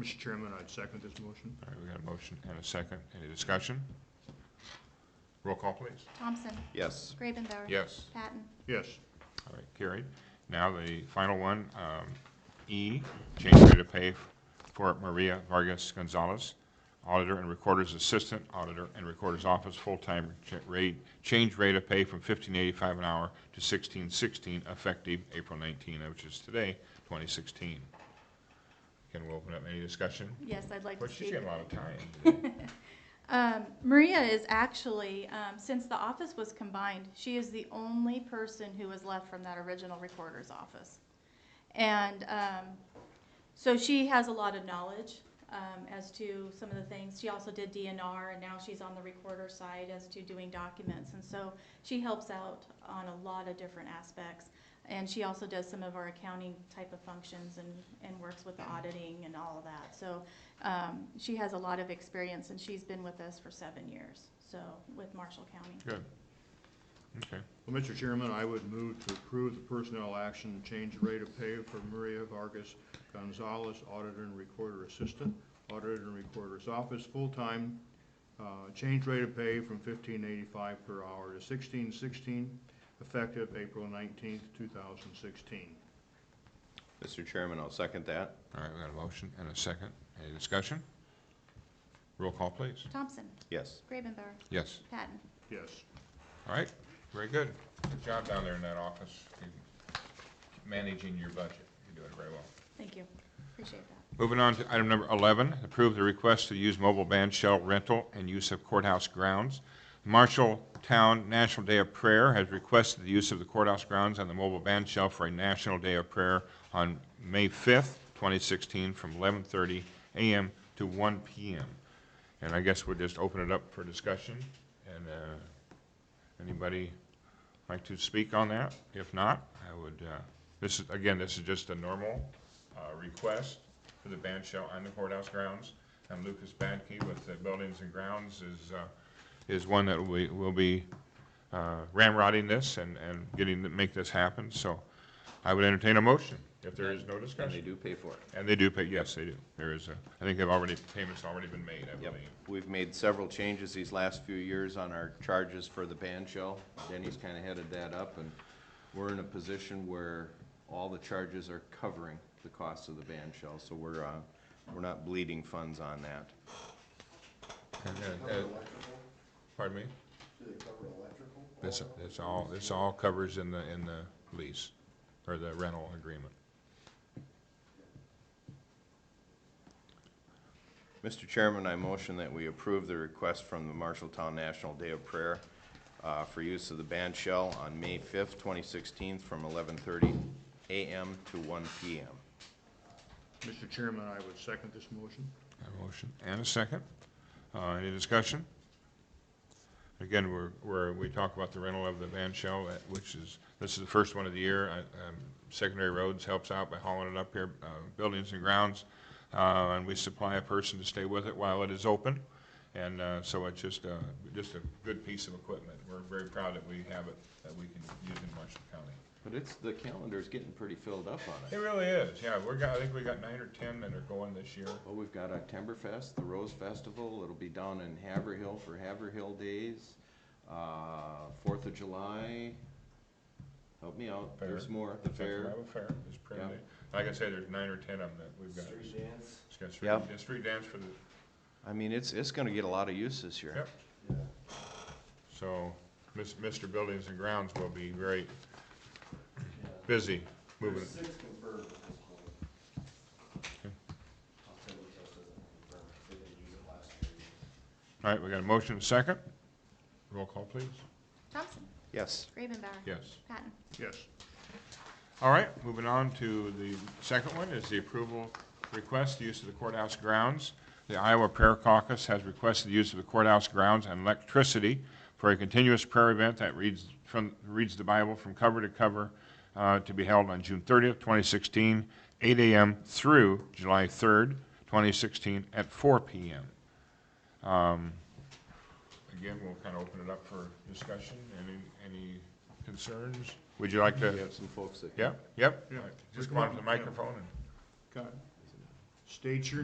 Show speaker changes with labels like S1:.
S1: Mr. Chairman, I'd second this motion.
S2: All right, we got a motion and a second. Any discussion? Roll call, please.
S3: Thompson,
S4: Yes.
S3: Gravenbauer.
S2: Yes.
S3: Patton,
S1: Yes,
S2: All right, carried. Now the final one, um, E, change rate of pay for Maria Vargas Gonzalez, Auditor and Recorder's Assistant, Auditor and Recorder's Office, full-time cha- rate, change rate of pay from fifteen eighty-five an hour to sixteen sixteen, effective April nineteen, which is today, twenty sixteen. Can we open up any discussion?
S3: yes, I'd like to
S2: Well,
S3: speak.
S2: she's getting a lot of time.
S3: Um, Maria is actually, um, since the office was combined, she is the only person who was left from that original recorder's office. And, um, so she has a lot of knowledge, um, as to some of the things. She also did DNR and now she's on the recorder side as to doing documents. And so she helps out on a lot of different aspects. And she also does some of our accounting type of functions and, and works with the auditing and all of that. So, um, she has a lot of experience and she's been with us for seven years, so with Marshall County.
S2: Good. Okay.
S1: well, Mr. Chairman, I would move to approve the personnel action, change rate of pay for Maria Vargas Gonzalez, Auditor and Recorder Assistant, Auditor and Recorder's Office, full-time, uh, change rate of pay from fifteen eighty-five per hour to sixteen sixteen, effective April nineteenth, two thousand sixteen.
S4: Mr. Chairman, I'll second that.
S2: All right, we got a motion and a second. Any discussion? Roll call, please.
S3: Thompson,
S4: Yes.
S3: Gravenbauer,
S2: Yes.
S3: Patton.
S1: Yes.
S2: All right, very good. Good job down there in that office, in managing your budget. You're doing very well.
S3: Thank you, appreciate that.
S2: Moving on to item number 11, approve the request to use mobile band shell rental and use of courthouse grounds. Marshalltown National Day of Prayer has requested the use of the courthouse grounds and the mobile band shell for a National Day of Prayer on May 5th, 2016, from 11:30 a.m. to 1 p.m. And I guess we'll just open it up for discussion, and uh, anybody like to speak on that? If not, I would, uh, this is, again, this is just a normal uh, request for the band shell on the courthouse grounds. And Lucas Badke with the Buildings and Grounds is, uh, is one that we, will be uh, ramrodding this and, and getting, to make this happen. So I would entertain a motion if there is no
S4: And they
S2: discussion.
S4: do pay for it.
S2: And they do pay, yes, they do. There is a, I think they've already, payment's already been made, I
S4: Yep.
S2: believe.
S4: We've made several changes these last few years on our charges for the band shell. Denny's kind of headed that up, and we're in a position where all the charges are covering the cost of the band shell, so we're, uh, we're not bleeding funds on that.
S2: And, uh, uh, Pardon me? Do they cover electrical? This, this all, this all covers in the, in the lease, or the rental agreement.
S4: Mr. Chairman, I motion that we approve the request from the Marshalltown National Day of Prayer uh, for use of the band shell on May 5th, 2016, from 11:30 a.m. to 1 p.m.
S1: Mr. Chairman, I would second this motion.
S2: A motion and a second. Uh, any discussion? Again, we're, we're, we talk about the rental of the van shell, uh, which is, this is the first one of the year. I- um, Secondary Roads helps out by hauling it up here, uh, buildings and grounds. Uh, and we supply a person to stay with it while it is open. And, uh, so it's just, uh, just a good piece of equipment. We're very proud that we have it, that we can use in Marshall County.
S4: But it's, the calendar's getting pretty filled up on
S2: It
S4: it.
S2: really is, yeah. We're got, I think we got nine or ten that are going this year.
S4: Well, we've got Oktoberfest, the Rose Festival, it'll be down in Haverhill for Haverhill Days, uh, Fourth of July, help me out, there's
S2: Fair.
S4: more, the
S2: Central
S4: fair.
S2: Iowa Fair is pretty
S4: Yeah.
S2: neat. Like I say, there's nine or ten of them that we've got.
S5: Street dance,
S2: It's got
S4: Yeah.
S2: street, it's street dance for the,
S4: I mean, it's, it's gonna get a lot of use this year.
S2: Yep.
S5: yeah.
S2: so, Mis- Mr. Buildings and Grounds will be very
S5: yeah.
S2: busy moving.
S5: There's six confirmed at this point.
S2: Okay.
S5: Oktoberfest isn't confirmed, they didn't use it last year.
S2: All right, we got a motion, second. Roll call, please.
S3: Thompson,
S4: Yes.
S3: Gravenbauer.
S2: Yes.
S3: Patton,
S1: Yes.
S2: All right, moving on to the second one is the approval request, use of the courthouse grounds. The Iowa Prayer Caucus has requested the use of the courthouse grounds and electricity for a continuous prayer event that reads from, reads the Bible from cover to cover, uh, to be held on June thirtieth, twenty sixteen, eight AM through July third, twenty sixteen, at four PM. Um, Again, we'll kind of open it up for discussion. Any, any concerns? Would you like to?
S4: We have some folks that.
S2: Yep, yep.
S1: Yeah.
S2: Just come on to the microphone and.
S1: Got it. State your